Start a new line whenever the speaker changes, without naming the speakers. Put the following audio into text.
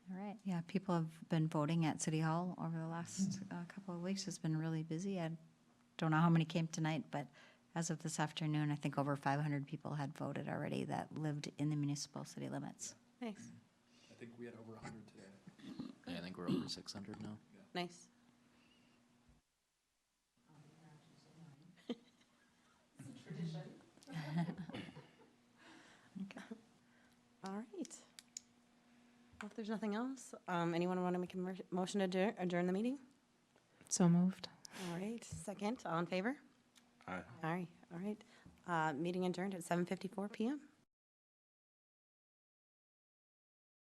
Yeah, people have been voting at City Hall over the last uh, couple of weeks. It's been really busy. I don't know how many came tonight, but as of this afternoon, I think over 500 people had voted already that lived in the municipal city limits.
Nice,
I think we had over a hundred today.
Yeah, I think we're over six hundred now.
nice. All right. Well, if there's nothing else, um, anyone want to make a mer- motion to adjourn, adjourn the meeting?
So moved.
All right, second, all in favor?
Aye.
All right, all right. Uh, meeting adjourned at seven fifty-four PM.